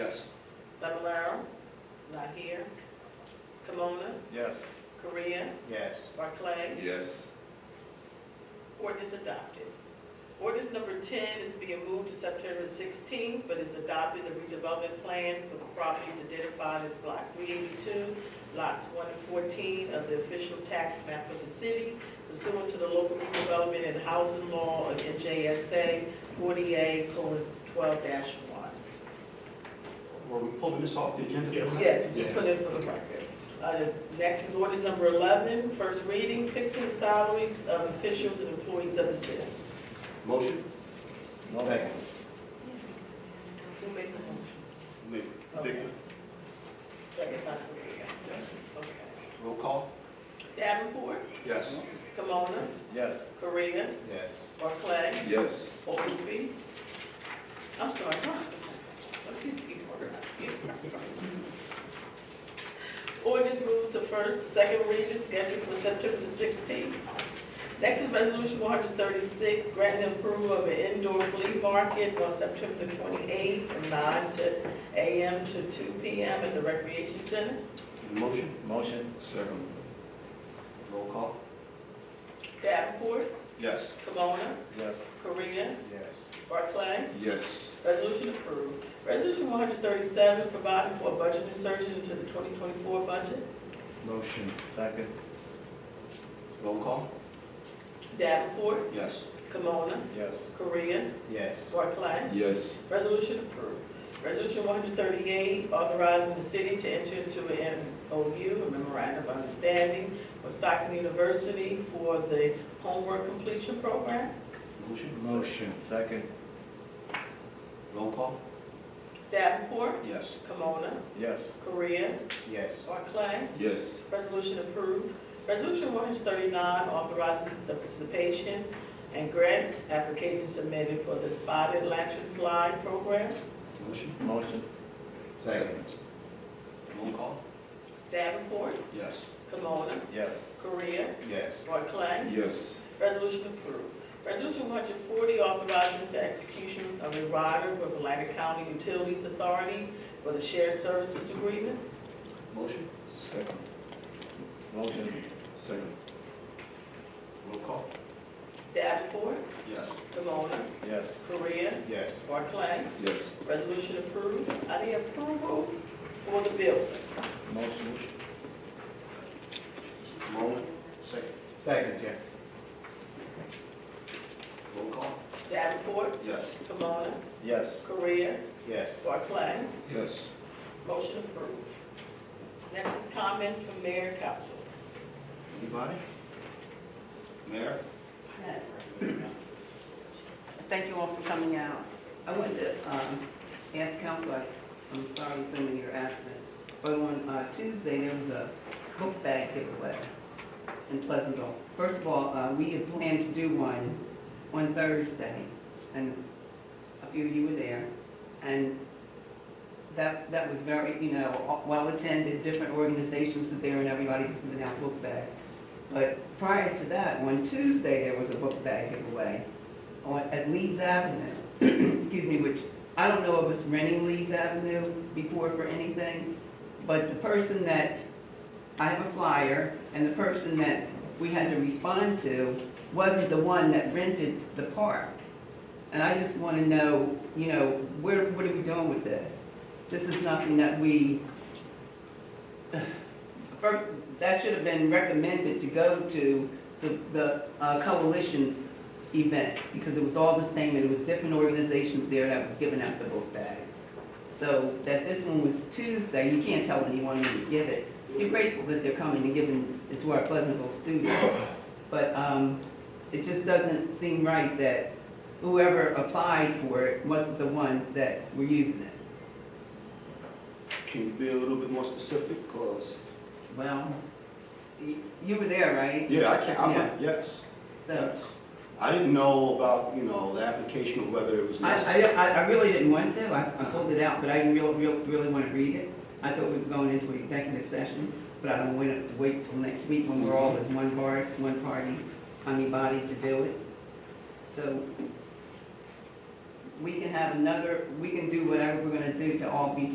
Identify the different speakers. Speaker 1: Bemilar, not here. Kimona,
Speaker 2: Yes.
Speaker 1: Korea,
Speaker 2: Yes.
Speaker 1: Barclay.
Speaker 3: Yes.
Speaker 1: Ordinance adopted. Ordinance number ten is being moved to September sixteenth, but is adopting the redevelopment plan for the properties identified as block three eighty-two, lots one and fourteen of the official tax map of the city pursuant to the local redevelopment and housing law of NJSA forty-eight twelve one.
Speaker 4: Were we pulling this off the agenda?
Speaker 1: Yes, we just put it for the record. Uh, the Next is ordinance number 11, first reading, fixing the salaries of officials and employees of the city.
Speaker 4: Motion?
Speaker 2: Second.
Speaker 1: Who made the motion?
Speaker 2: Move.
Speaker 1: Okay. Second by Korea. Okay.
Speaker 4: Roll call?
Speaker 1: Davenport,
Speaker 4: Yes.
Speaker 1: Kimona,
Speaker 2: Yes.
Speaker 1: Korea,
Speaker 2: Yes.
Speaker 1: Barclay,
Speaker 3: Yes.
Speaker 1: Oldesty. I'm sorry, huh? what's these people? Ordinance moved to first, second reading scheduled for September the sixteenth. Next is resolution one hundred thirty-six, granting approval of an indoor flea market on September the twenty-eighth from nine to AM to two PM at the Recreation Center.
Speaker 4: Motion?
Speaker 2: Motion.
Speaker 3: Second.
Speaker 4: Roll call?
Speaker 1: Davenport,
Speaker 4: Yes.
Speaker 1: Kimona,
Speaker 2: Yes.
Speaker 1: Korea,
Speaker 2: Yes.
Speaker 1: Barclay.
Speaker 3: Yes.
Speaker 1: Resolution approved. Resolution one hundred thirty-seven, providing for a budget insertion into the twenty twenty-four budget.
Speaker 2: Motion. Second.
Speaker 4: Roll call?
Speaker 1: Davenport,
Speaker 4: Yes.
Speaker 1: Kimona,
Speaker 2: Yes.
Speaker 1: Korea,
Speaker 2: Yes.
Speaker 1: Barclay.
Speaker 3: Yes.
Speaker 1: Resolution approved. Resolution one hundred thirty-eight, authorizing the city to enter into an MOU, a memorandum of understanding, with Stockton University for the homework completion program.
Speaker 4: Motion?
Speaker 2: Motion. Second.
Speaker 4: Roll call?
Speaker 1: Davenport,
Speaker 4: Yes.
Speaker 1: Kimona,
Speaker 2: Yes.
Speaker 1: Korea,
Speaker 2: Yes.
Speaker 1: Barclay.
Speaker 3: Yes.
Speaker 1: Resolution approved. Resolution one hundred thirty-nine, authorizing the participation and grant application submitted for the Spotted Lantern Fly Program.
Speaker 4: Motion?
Speaker 2: Motion. Second.
Speaker 4: Roll call?
Speaker 1: Davenport,
Speaker 4: Yes.
Speaker 1: Kimona,
Speaker 2: Yes.
Speaker 1: Korea,
Speaker 2: Yes.
Speaker 1: Barclay.
Speaker 3: Yes.
Speaker 1: Resolution approved. Resolution one hundred forty, authorizing the execution of a rider with Atlantic County Utilities Authority for the shared services agreement.
Speaker 4: Motion?
Speaker 3: Second.
Speaker 2: Motion.
Speaker 3: Second.
Speaker 4: Roll call?
Speaker 1: Davenport,
Speaker 4: Yes.
Speaker 1: Kimona,
Speaker 2: Yes.
Speaker 1: Korea,
Speaker 2: Yes.
Speaker 1: Barclay.
Speaker 3: Yes.
Speaker 1: Resolution approved. I need approval for the bill list.
Speaker 2: Motion.
Speaker 4: Moment? Second.
Speaker 2: Second, yeah.
Speaker 4: Roll call?
Speaker 1: Davenport,
Speaker 4: Yes.
Speaker 1: Kimona,
Speaker 2: Yes.
Speaker 1: Korea,
Speaker 2: Yes.
Speaker 1: Barclay.
Speaker 3: Yes.
Speaker 1: Motion approved. Next is comments from mayor and council.
Speaker 4: Anybody? Mayor?
Speaker 5: Yes. Thank you all for coming out. I wanted to um, ask council, I- I'm sorry, some of you are absent, but on uh, Tuesday, there was a book bag giveaway in Pleasantville. First of all, uh, we had planned to do one on Thursday, and a few of you were there. And that, that was very, you know, well-attended, different organizations were there, and everybody was giving out book bags. But prior to that, on Tuesday, there was a book bag giveaway on, at Leeds Avenue, excuse me, which I don't know if it's renting Leeds Avenue before for anything, but the person that, I have a flyer, and the person that we had to respond to wasn't the one that rented the park. And I just want to know, you know, where, what are we doing with this? This is nothing that we, First, that should have been recommended to go to the, the uh, coalition's event, because it was all the same, and it was different organizations there that was giving out the book bags. So that this one was Tuesday, you can't tell anyone when you give it. You're grateful that they're coming and giving it to our Pleasantville students, but, um, it just doesn't seem right that whoever applied for it wasn't the ones that were using it.
Speaker 4: Can you be a little bit more specific, cause?
Speaker 5: Well, y- you were there, right?
Speaker 4: Yeah, I can't,
Speaker 5: Yeah.
Speaker 4: I'm, yes.
Speaker 5: So,
Speaker 4: Yes. I didn't know about, you know, the application or whether it was
Speaker 5: I, I,
Speaker 4: necessary.
Speaker 5: I- I really didn't want to, I, I pulled it out, but I didn't real, real, really want to read it. I thought we were going into an executive session, but I don't want to wait till next week when we're all as one bar, one party, I mean body to do it. So we can have another, we can do whatever we're gonna do to all be